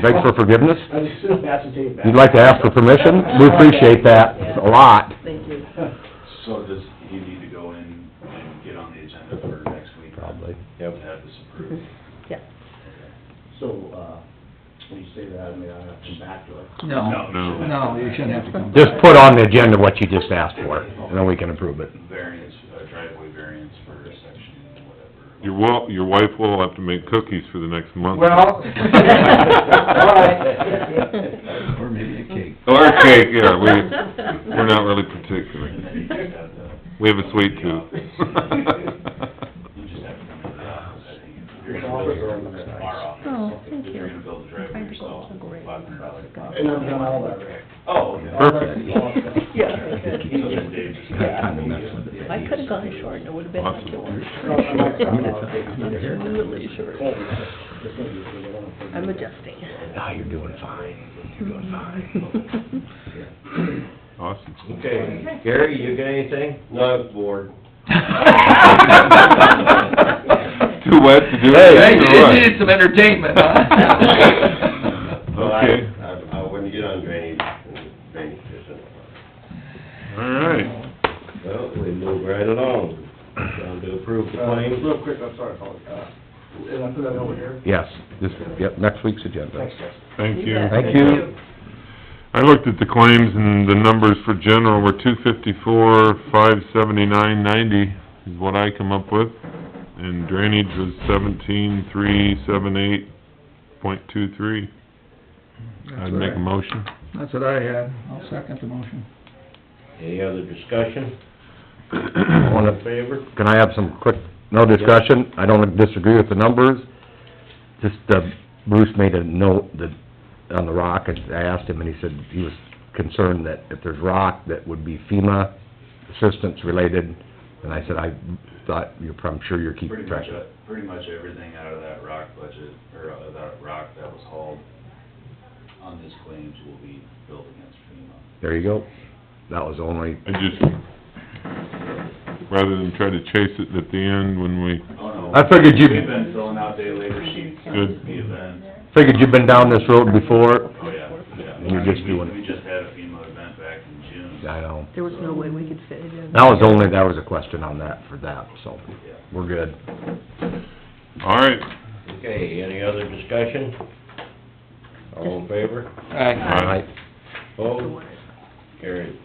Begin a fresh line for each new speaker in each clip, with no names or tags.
beg for forgiveness?
I just assume that's a tape back.
You'd like to ask for permission? We appreciate that a lot.
Thank you.
So does he need to go in and get on the agenda for next week?
Probably,
To
yep.
have this approved?
Yeah.
So, uh, when you say that, I mean, I have to come back to it.
No,
No.
no, you shouldn't have to come.
Just put on the agenda what you just asked for, and then we can approve it.
Variance, uh, driveway variance for a section, whatever.
Your wa, your wife will have to make cookies for the next month.
Well.
Or maybe a cake.
Or cake, yeah, we, we're not really
And then you
particular.
just have to.
We have a sweet
The office.
tooth.
You just have to come into the office, I think. If you're
Your
gonna
office
build your
or
own,
the-
our office.
Oh, thank
If you're
you.
gonna build the driveway yourself, five hundred dollars.
And I've done all that, Rick.
Oh, okay.
Perfect.
Yeah, I could.
So then Dave just
Yeah,
got.
kind of messed with it.
I could've gone short, and it would've been like yours. Really short. I'm adjusting.
Ah, you're doing fine, you're doing fine.
Awesome.
Okay, Gary, you got anything? No, I'm bored.
Too wet to do
Hey,
it.
you needed some entertainment, huh?
Okay,
I, I wouldn't get on drainage, and drainage isn't.
all right.
Well, we move right along, down to approve the
Uh,
claims.
Real quick, I'm sorry, Paul, uh, and I put that over here.
Yes, this, yep, next week's agenda.
Thanks, guys.
Thank you.
Thank you.
I looked at the claims and the numbers for general were two fifty-four, five seventy-nine, ninety is what I come up with. And drainage was seventeen, three, seven, eight, point two, three. I'd make a motion.
That's what I had. I'll second the motion.
Any other discussion? All
Wanna-
in favor?
Can I have some quick, no discussion? I don't disagree with the numbers. Just, uh, Bruce made a note that, on the rock, I asked him, and he said he was concerned that if there's rock, that would be FEMA assistance related. And I said, I thought, you're, I'm sure you're
Pretty
keeping
much,
track of it.
pretty much everything out of that rock budget, or out of that rock that was hauled on this claims will be billed against FEMA.
There you go. That was the only,
I just, rather than try to chase it at the end when we,
Oh, no.
I figured you-
We've been filling out day labor sheets since
Good.
the event.
figured you've been down this road before.
Oh, yeah, yeah.
And you're just
I mean, we-
doing it.
We just had a FEMA event back in June.
I know.
There was no way we could fit it in.
That was only, that was a question on that, for that, so,
Yeah.
we're good.
all right.
Okay, any other discussion? All in favor?
Aye.
Aye.
Opposed? Carried.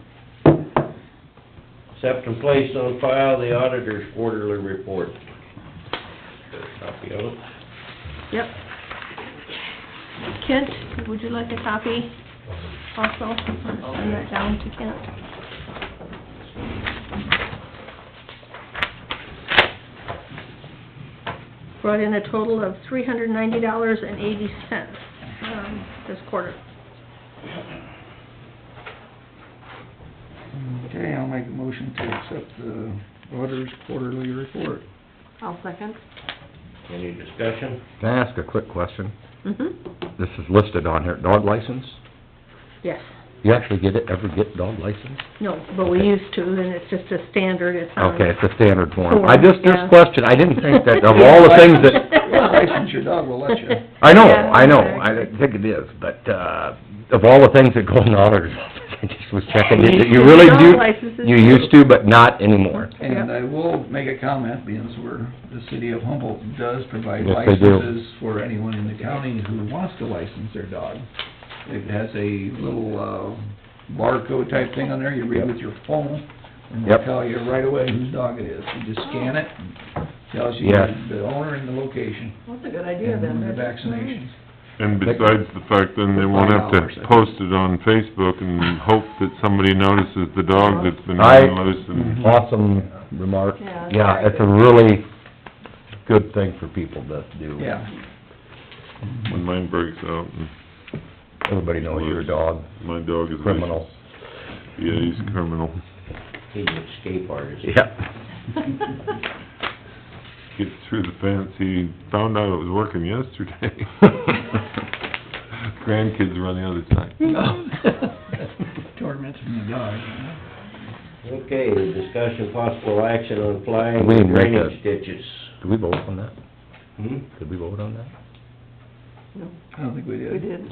Accept and place on file the auditor's quarterly report. Got a Copy of it?
Yep. Kent, would you like a copy also? Send that down to Kent. Brought in a total of three hundred ninety dollars and eighty cents, um, this quarter.
Okay, I'll make a motion to accept the auditor's quarterly report.
I'll second.
Any discussion?
Can I ask a quick question?
Mm-hmm,
This is listed on here, dog license?
yes.
You actually get it, ever get dog license?
No, but we
Okay.
used to, and it's just a standard, it's on...
Okay, it's a standard form.
Uh, Form,
I just,
yeah.
just questioned, I didn't think that of all the things that,
License your dog, we'll let you.
I know,
Yeah,
I know, I
exactly.
think it is, but, uh, of all the things that go in the auditor's office, I just was checking, you you really
Dog
do,
licenses.
you used to, but not anymore.
And I will make a comment, being as we're, the city of Humboldt does provide
Yes, they do.
licenses for anyone in the county who wants to license their dog. It has a little, uh, barcode type thing on there, you read with your phone, and it'll
Yep.
tell you right away whose dog it is. You just scan it, and tells you
Yes.
the owner and the location,
That's a good idea,
and
then.
the vaccination.
And besides the fact, then they won't have to post it on Facebook and hope that somebody notices the dog that's been running
Right.
loose and...
Mm-hmm. Awesome remark.
Yeah, that's
Yeah,
very
it's a
good.
really good thing for people to do.
Yeah.
When mine breaks out, and
Everybody knows you're a dog,
my dog is...
criminal.
Yeah, he's a criminal.
He's an escape artist.
Yeah.
Gets through the fence, he found out it was working yesterday. Grandkids are on the other side.
Tormenting the dog, you know?
Okay, discussion possible action on flying
We didn't make
drainage ditches.
Did we vote on that?
Hmm?
Did we vote on that?
I don't think we did.
We did.